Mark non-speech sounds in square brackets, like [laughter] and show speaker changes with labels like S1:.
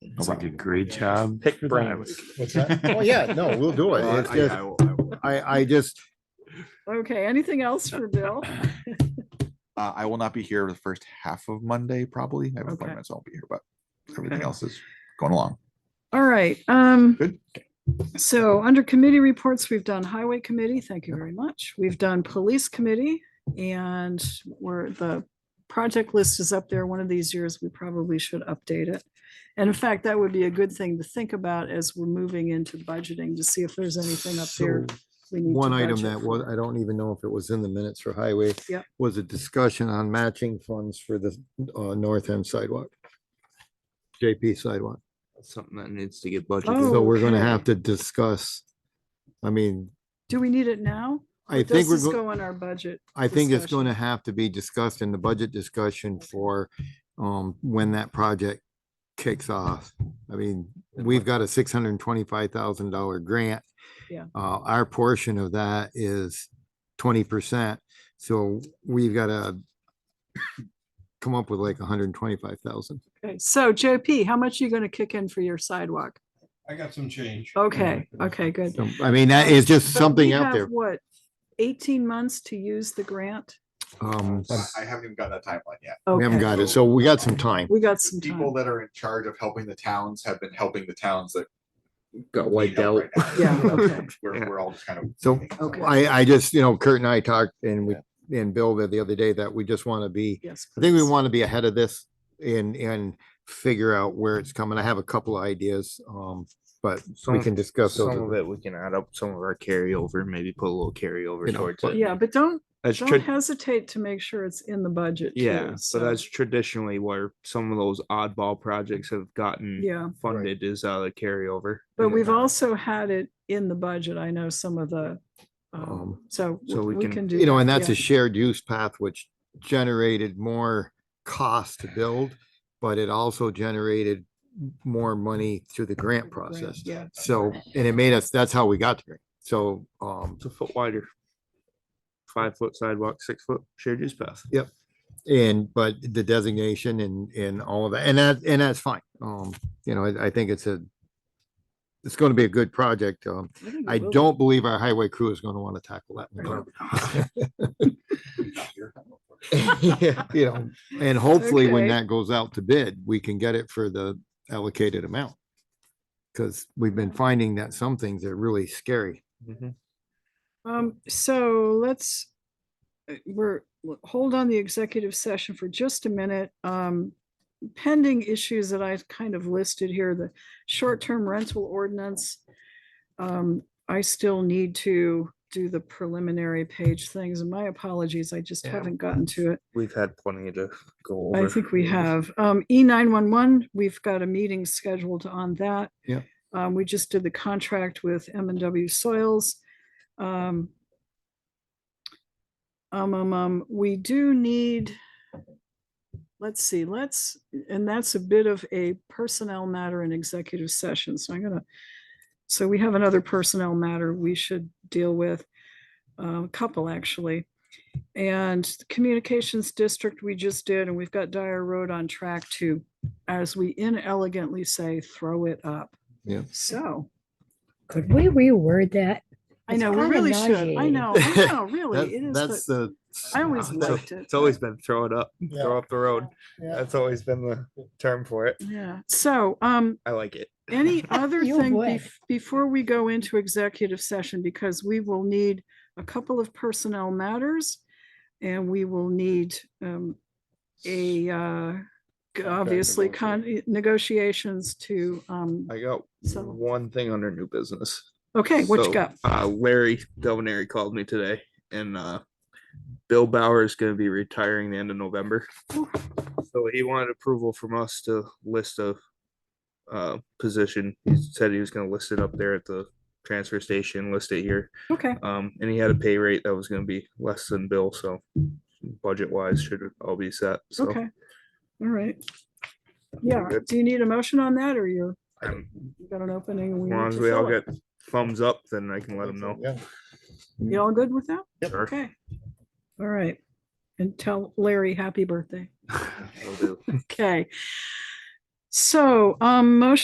S1: No
S2: We
S1: problem.
S2: did a great job.
S3: Pick
S2: Good
S3: brains.
S4: What's that?
S2: [laughs]
S5: Oh, yeah, no, we'll do it.
S1: [laughs] Well,
S5: It's
S1: I-
S5: just,
S1: I uh, will- I will.
S5: I, I just,
S6: Okay, anything
S5: [laughs]
S6: else for Bill?
S1: Uh, I will not be here the first half of Monday, probably. I have an
S6: Okay.
S1: appointment, so I'll be here, but everything
S6: Okay.
S1: else is going along.
S6: All right, um,
S1: Good.
S6: so under committee reports, we've done highway committee, thank you very much. We've done police committee and we're, the project list is up there. One of these years, we probably should update it. And in fact, that would be a good thing to think about as we're moving into budgeting to see if there's anything up there.
S5: So,
S6: we need to
S5: One item
S6: budget
S5: that
S6: for.
S5: was, I don't even know if it was in the minutes for highway.
S6: Yep.
S5: Was a discussion on matching funds for the uh, north end sidewalk. JP sidewalk.
S2: Something that needs to get budgeted.
S6: Oh.
S5: So we're gonna have
S6: Okay.
S5: to discuss, I mean,
S6: Do we need it now?
S5: I
S6: Does
S5: think we're,
S6: this
S5: go-
S6: go in our budget?
S5: I think it's
S6: discussion?
S5: gonna have to be discussed in the budget discussion for um, when that project kicks off. I mean, we've got a six hundred and twenty-five thousand dollar grant.
S6: Yeah.
S5: Uh, our portion of that is twenty percent, so we've gotta come up with like a hundred and twenty-five thousand.
S6: Okay, so JP, how much are you gonna kick in for your sidewalk?
S7: I got some change.
S6: Okay, okay, good.
S5: I mean, that is just
S6: But
S5: something
S6: we
S5: out
S6: have,
S5: there.
S6: What, eighteen months to use the grant?
S5: Um,
S1: I I haven't even got that timeline yet.
S5: we haven't
S6: Okay,
S5: got it, so we got some time.
S6: We got some
S1: People
S6: time.
S1: that are in charge of helping the towns have been helping the towns that.
S2: Got
S1: need
S2: wiped
S1: help
S2: out.
S1: right now.
S6: Yeah, okay,
S1: [laughs] We're, we're all just kind of.
S5: So
S6: Okay.
S5: I, I just, you know, Kurt and I talked and we, and Bill the other day that we just want to be,
S6: yes.
S5: I think we
S6: please.
S5: want to be ahead of this and, and figure out where it's coming. I have a couple of ideas, um, but we
S2: Some-
S5: can discuss those.
S2: Some of
S5: with-
S2: it, we can add up some of our carryover, maybe put a little carryover
S5: You know,
S2: towards
S5: but-
S2: it.
S6: Yeah, but don't,
S2: That's
S6: don't
S2: true.
S6: hesitate to make sure it's in the budget. too,
S2: Yeah, so
S6: so-
S2: that's traditionally where some of those oddball projects have gotten
S6: Yeah,
S2: funded is out of the carryover.
S6: but
S2: and uh,
S6: we've
S2: whatnot.
S6: also had it in the budget. I know some of the, um,
S5: Um,
S6: so
S2: so we
S6: we
S2: can-
S6: can do.
S5: You know,
S6: that,
S5: and that's
S6: yeah.
S5: a shared use path which generated more cost to build, but it also generated more money through the grant
S6: Through the grant,
S5: process.
S6: yeah.
S5: So, and it made us, that's how we got to grant. So, um,
S2: It's a foot wider. Five foot sidewalk, six foot shared use path.
S5: And, but the designation and, and all of that, and that, and that's fine. Um, you know, I, I think it's a, it's going to be a good project. Um,
S6: think it
S5: I
S6: will be.
S5: don't believe our highway crew is going to want to tackle that. in
S6: Right.
S5: the [laughs] dark. You know, and hopefully when
S6: Okay.
S5: that goes out to bid, we can get it for the allocated amount. Cause we've been finding that some things are really scary.
S2: Mm-hmm.
S6: Um, so let's, uh, we're, we'll hold on the executive session for just a minute. Um, pending issues that I've kind of listed here, the short-term rental ordinance. Um, I still need to do the preliminary page things and my apologies, I just
S2: Yeah.
S6: haven't gotten to it.
S2: We've had plenty to go over.
S6: I think we have. Um, E nine one one, we've got a meeting scheduled on that.
S5: Yep.
S6: Um, we just did the contract with M and W Soils. Um, um, um, um, we do need, let's see, let's, and that's a bit of a personnel matter in executive session, so I'm gonna, so we have another personnel matter we should deal with, uh, a couple actually. And Communications District, we just did, and we've got Dyer Road on track to, as we inelegantly say, throw it up.
S5: Yeah.
S6: So,
S8: Could we reword that?
S6: I
S8: It's
S6: know, we
S8: kinda
S6: really should. I
S8: nauseating.
S6: know, I know, really, it
S5: That- That's
S6: is. but
S5: the.
S6: I always
S5: that's-
S6: liked it.
S2: It's always been throw it up,
S4: Yeah.
S2: throw up the road.
S4: Yeah.
S2: That's always been the term for it.
S6: Yeah, so, um,
S2: I like it.
S6: Any other
S8: [laughs] You
S6: thing
S8: would.
S6: bef- before we go into executive session, because we will need a couple of personnel matters. And we will need um a uh g- obviously con e- negotiations to um,
S2: [laughs] I got
S6: So-
S2: one thing under new business.
S6: okay, what
S2: So,
S6: you got?
S2: Uh, Larry Delvenary called me today and, uh, Bill Bauer is gonna be retiring the end of November. So he wanted approval from us to list a, uh, position. He said he was gonna list it up there at the transfer station, list it here.
S6: Okay,
S2: Um, and he had a pay rate that was gonna be less than Bill, so budget wise should all be set, so.
S6: okay. All right. Yeah,
S2: good.
S6: do you need a motion on that or you're,
S2: I'm-
S6: you got an opening? and
S2: As
S6: we
S2: long
S6: need
S2: as
S6: to
S2: we all
S6: fill it?
S2: get thumbs up, then I can let him know.
S4: Yeah.
S6: You all good with that?
S2: Sure.
S6: Okay. All right. And tell Larry, happy birthday.
S2: Will do.
S6: Okay. So, um, motion